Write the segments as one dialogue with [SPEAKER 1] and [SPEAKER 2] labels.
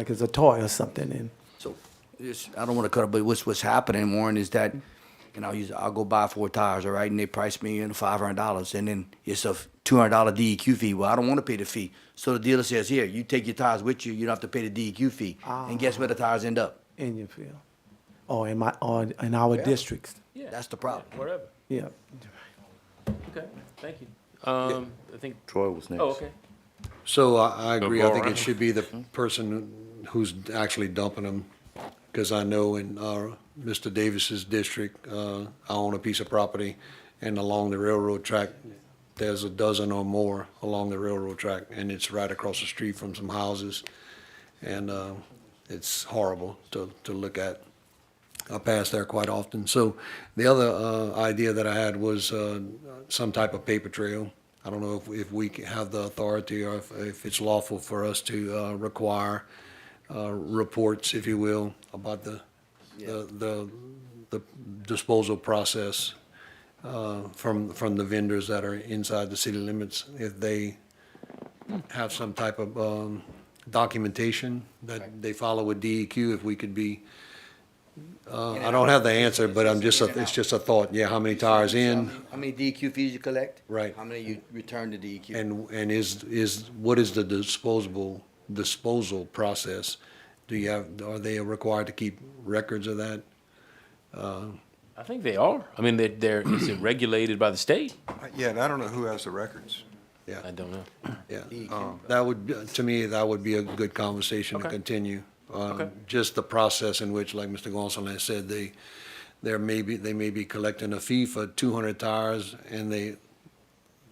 [SPEAKER 1] like it's a toy or something, and
[SPEAKER 2] So, this, I don't wanna cut it, but what's, what's happening, Warren, is that, and I'll use, I'll go buy four tires, all right, and they price me in five hundred dollars, and then it's a two hundred dollar DEQ fee, well, I don't wanna pay the fee. So the dealer says, here, you take your tires with you, you don't have to pay the DEQ fee, and guess where the tires end up?
[SPEAKER 1] in your field, or in my, or in our districts,
[SPEAKER 3] Yeah.
[SPEAKER 2] That's the problem.
[SPEAKER 3] Whatever.
[SPEAKER 1] yeah.
[SPEAKER 3] Okay, thank you. Um, I think,
[SPEAKER 4] Troy was next.
[SPEAKER 3] oh, okay.
[SPEAKER 5] So uh, I, I agree. I think
[SPEAKER 6] Laura.
[SPEAKER 5] it should be the person who's actually dumping them. Because I know in, uh, Mr. Davis's district, uh, I own a piece of property and along the railroad track, there's a dozen or more along the railroad track and it's right across the street from some houses. And, uh, it's horrible to, to look at. I pass there quite often. So the other uh, idea that I had was uh, some type of paper trail. I don't know if, if we can have the authority or if, if it's lawful for us to uh, require uh, reports, if you will, about the, the, the the disposal process uh, from, from the vendors that are inside the city limits. If they have some type of um, documentation that they follow with DEQ, if we could be, uh, I don't have the answer, but I'm just, a- it's just a thought, yeah, how many tires in?
[SPEAKER 2] How many DEQ fees you collect?
[SPEAKER 5] Right.
[SPEAKER 2] How many you return E to DEQ?
[SPEAKER 5] And, and is, is, what is the disposable, disposal process? Do you have, are they required to keep records of that?
[SPEAKER 3] I think they are. I mean, they're, they're, is it regulated by the state?
[SPEAKER 6] Uh, Yeah, and I don't know who has the records.
[SPEAKER 3] I
[SPEAKER 5] Yeah,
[SPEAKER 3] don't know.
[SPEAKER 5] yeah. Um, That would, be- to me, that would be a good conversation to
[SPEAKER 3] Okay.
[SPEAKER 5] continue. Um,
[SPEAKER 3] Okay.
[SPEAKER 5] Just the process in which, like Mr. Gonzalez said, they, there may be, they may be collecting a fee for two hundred tires and they,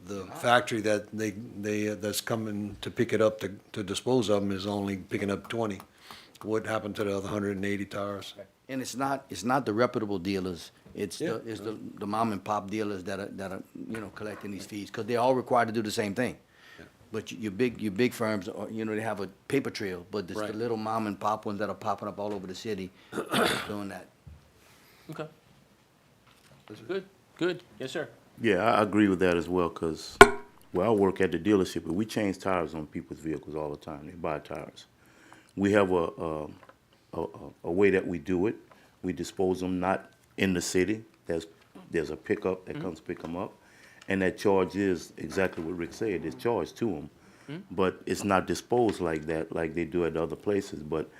[SPEAKER 5] the
[SPEAKER 3] Ah.
[SPEAKER 5] factory that they, they, uh, that's coming to pick it up to, to dispose of them is only picking up twenty. What happened to the other hundred and eighty tires?
[SPEAKER 2] And it's not, it's not the reputable dealers, it's the,
[SPEAKER 5] Yeah.
[SPEAKER 2] it's the, the mom and pop dealers that are, that are, you know, collecting these fees, cause they're all required to do the same thing. But your- your big, your big firms, are, you know, they have a paper trail, but it's the
[SPEAKER 5] Right.
[SPEAKER 2] little mom and pop ones that are popping up all over the city doing that.
[SPEAKER 3] Okay. Good, good. Yes, sir.
[SPEAKER 4] Yeah, I I agree with that as well, because, well, I work at the dealership, and we change tires on people's vehicles all the time. They buy tires. We have a, um, a, a, a way that we do it. We dispose them not in the city. There's, there's a pickup that comes pick them up. And that charge is exactly what Rick said, it's charged to them. But it's not disposed like that, like they do at other places. But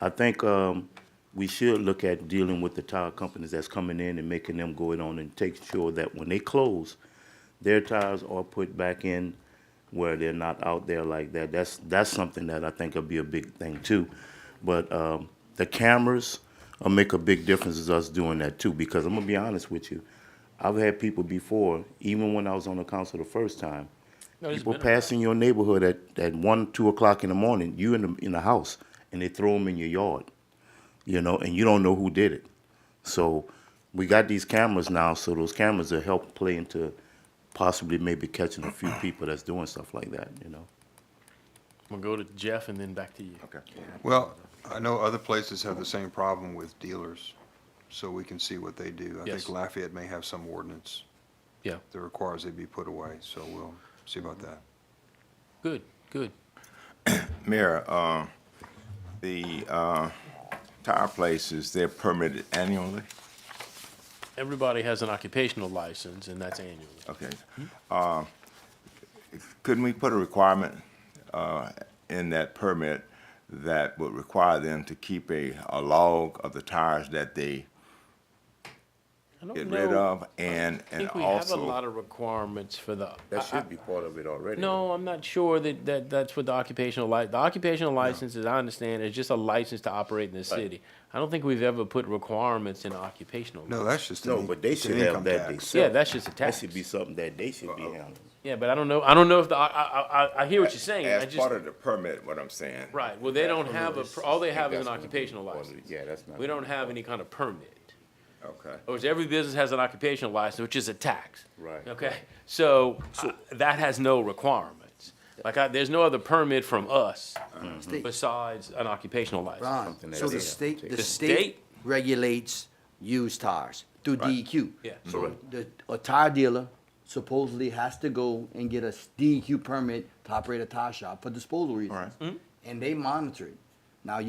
[SPEAKER 4] I think, um, we should look at dealing with the tire companies that's coming in and making them go it on and take sure that when they close, their tires are put back in where they're not out there like that. That's that's something that I think will be a big thing too. But um, the cameras will make a big difference as us doing that too. Because I'm gonna be honest with you, I've had people before, even when I was on the council the first time,
[SPEAKER 3] No, it's
[SPEAKER 4] people
[SPEAKER 3] been a-
[SPEAKER 4] passing your neighborhood at, at one, two o'clock in the morning, you in the in the house, and they throw them in your yard you know, and you don't know who did it. So we got these cameras now, so those cameras will help play into possibly maybe catching a few people that's doing stuff like that, you know.
[SPEAKER 3] I'm gonna go to Jeff and then back to you. Okay.
[SPEAKER 6] Well, I know other places have the same problem with dealers, so we can see what they do. I
[SPEAKER 3] Yes.
[SPEAKER 6] think Lafayette may have some ordinance
[SPEAKER 3] Yeah,
[SPEAKER 6] that requires they be put away, so we'll see about that.
[SPEAKER 3] good, good.
[SPEAKER 7] Mayor, uh, the uh, tire places, they're permitted annually?
[SPEAKER 3] Everybody has an occupational license and that's annually.
[SPEAKER 7] Okay. Uh, Couldn't we put a requirement uh, in that permit that would require them to keep a a log of the tires that they
[SPEAKER 3] I don't
[SPEAKER 7] get rid
[SPEAKER 3] know-
[SPEAKER 7] of? And
[SPEAKER 3] Oh, I
[SPEAKER 7] and
[SPEAKER 3] think we have a lot
[SPEAKER 7] also,
[SPEAKER 3] of requirements for the. I- I-
[SPEAKER 4] be part of it already.
[SPEAKER 3] No, I'm not sure that, that that's what the occupational li, the occupational license, as I understand, is just a license to operate in the city. I don't think we've ever put requirements in occupational.
[SPEAKER 6] No, that's just. an
[SPEAKER 4] No,
[SPEAKER 6] in-
[SPEAKER 4] but they
[SPEAKER 6] it's an
[SPEAKER 4] should have
[SPEAKER 6] income
[SPEAKER 4] that
[SPEAKER 6] tax.
[SPEAKER 4] themselves.
[SPEAKER 3] Yeah, that's just a
[SPEAKER 4] That should
[SPEAKER 3] tax.
[SPEAKER 4] be something that they should be handling.
[SPEAKER 3] Yeah, but I don't know, I don't know if the, I, I, I, I hear what you're saying, I
[SPEAKER 7] as
[SPEAKER 3] just,
[SPEAKER 7] part of the permit, what I'm saying.
[SPEAKER 3] right, well, they don't have a, per- all they have is an
[SPEAKER 7] That's-
[SPEAKER 3] occupational license.
[SPEAKER 4] Yeah, that's not.
[SPEAKER 3] We don't have any kind of permit.
[SPEAKER 7] Okay.
[SPEAKER 3] Or every business has an occupational license, which is a tax.
[SPEAKER 4] Right.
[SPEAKER 3] Okay, so uh, that has no requirements. Like, I, there's no other permit from us
[SPEAKER 2] State-
[SPEAKER 3] besides an occupational license.
[SPEAKER 2] Ron,
[SPEAKER 4] Something
[SPEAKER 2] so
[SPEAKER 4] that
[SPEAKER 2] the
[SPEAKER 4] they-
[SPEAKER 2] state, the
[SPEAKER 3] The
[SPEAKER 2] state
[SPEAKER 3] state-
[SPEAKER 2] regulates used tires through E DEQ.
[SPEAKER 3] Yeah.
[SPEAKER 7] Mm-hmm.
[SPEAKER 2] So the, a tire dealer supposedly has to go and get a DEQ permit to operate a tire shop for disposal reasons. And they monitor it.